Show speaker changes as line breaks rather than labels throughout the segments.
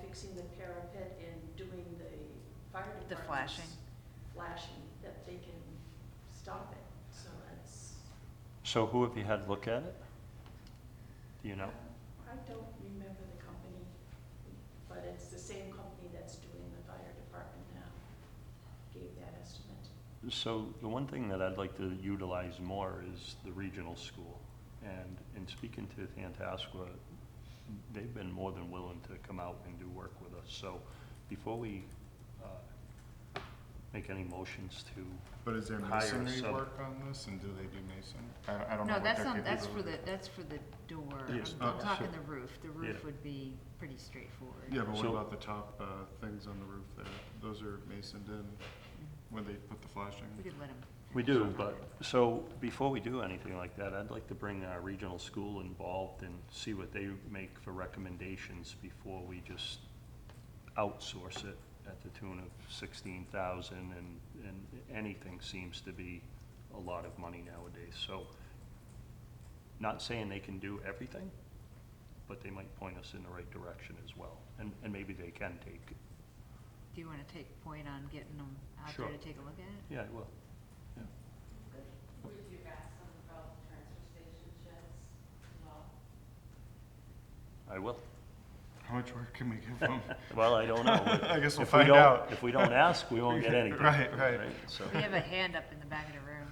fixing the parapet and doing the fire department's.
The flashing.
Flashing, that they can stop it, so that's.
So who have you had look at it? Do you know?
I don't remember the company, but it's the same company that's doing the fire department now, gave that estimate.
So the one thing that I'd like to utilize more is the regional school. And in speaking to Tantascwa, they've been more than willing to come out and do work with us. So before we uh, make any motions to,
But is there
Hire a
masonry
sub-
work on this, and do they do masonry? I, I don't
No,
know what
that's
their
on, that's for the,
capability-
that's for the door.
Yes,
I'm- I'm
okay.
talking the roof. The roof
Yeah.
would be pretty straightforward.
Yeah, but what
So-
about the top, uh, things on the roof there? Those are masoned in when they put the flashing?
We could let them.
we do, but, so before we do anything like that, I'd like to bring our regional school involved and see what they make for recommendations before we just outsource it at the tune of sixteen thousand, and, and anything seems to be a lot of money nowadays, so. Not saying they can do everything, but they might point us in the right direction as well, and, and maybe they can take,
Do you wanna take point on getting them out there
Sure.
to take a look at it?
yeah, well, yeah.
Would you ask them about the transfer station sheds as well?
I will.
How much work can we give them?
Well, I don't know. but
I guess we'll
if we
find
don't-
out.
If we don't ask, we won't get anything.
Right, right.
So,
We have a hand up in the back of the room.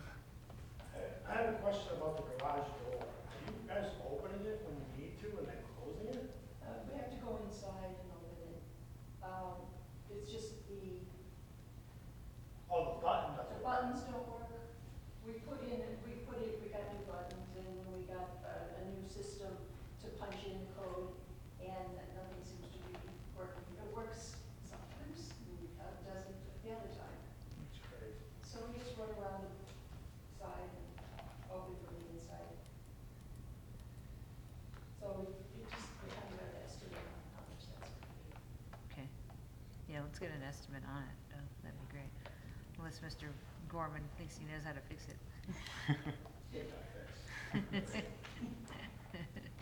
I have a question about the garage door. Are you guys opening it when you need to and then closing it?
Uh, we have to go inside and open it. Um, it's just the,
Oh, the button
the
doesn't work.
buttons don't work. We put in, we put it, we got new buttons and we got uh, a, a new system to punch in code and nothing seems to be working. It works sometimes, uh, doesn't the other time.
It's crazy.
So we just run around the side and open from the inside. So we just, we haven't got an estimate on how much that's gonna be.
Okay. Yeah, let's get an estimate on it. Uh, That'd be great. Unless Mr. Gorman thinks he knows how to fix it.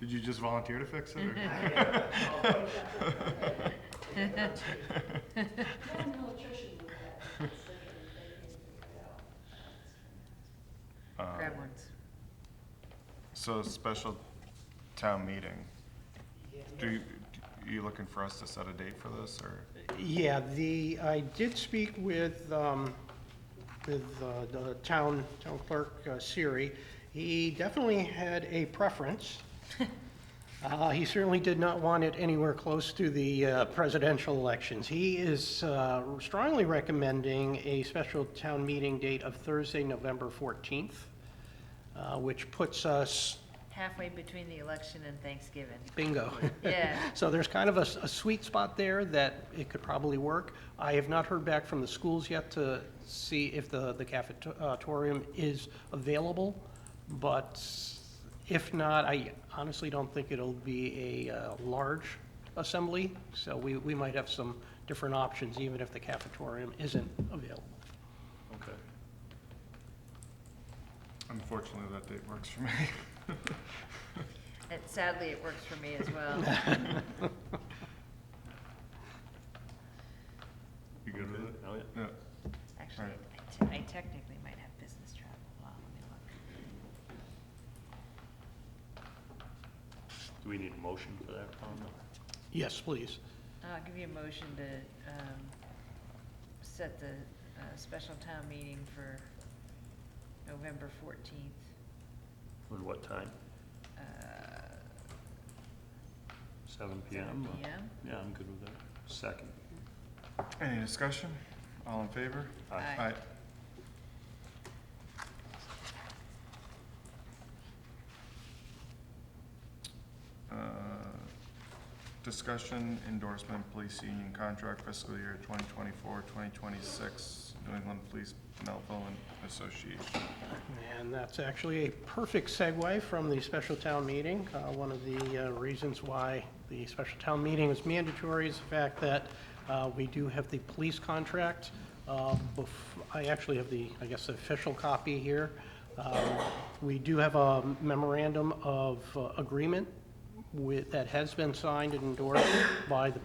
Did you just volunteer to fix it, or?
Not an electrician would have, it's like they can figure it out.
Uh,
Grab ones.
So, special town meeting,
Yeah.
do you, are you looking for us to set a date for this, or?
Yeah, the, I did speak with, um, with uh, the town, town clerk, uh, Siri. He definitely had a preference. Uh, he certainly did not want it anywhere close to the uh, presidential elections. He is, uh, strongly recommending a special town meeting date of Thursday, November fourteenth, uh, which puts us,
Halfway between the election and Thanksgiving.
bingo.
Yeah.
So there's kind of a, s- a sweet spot there that it could probably work. I have not heard back from the schools yet to see if the, the cafetorium is available, but if not, I honestly don't think it'll be a uh, large assembly, so we, we might have some different options, even if the cafetorium isn't available.
okay.
Unfortunately, that date works for me.
And sadly, it works for me as well.
You good with it?
Oh, yeah.
Yeah.
Actually,
Right.
I te- I technically might have business travel. Wow, let me look.
Do we need a motion for that, Tom?
Yes, please.
I'll give you a motion to, um, set the, uh, special town meeting for November fourteenth.
At what time?
Uh,
Seven PM?
seven
or-
PM?
Yeah, I'm good with that. Second.
Any discussion? All in favor?
Aye.
Uh, Discussion endorsement police union contract fiscal year 2024, 2026, New England Police Melville and Association.
And that's actually a perfect segue from the special town meeting. Uh, One of the uh, reasons why the special town meeting is mandatory is the fact that uh, we do have the police contract. Uh, bef- I actually have the, I guess, the official copy here. Um, We do have a memorandum of uh, agreement with, that has been signed and endorsed by the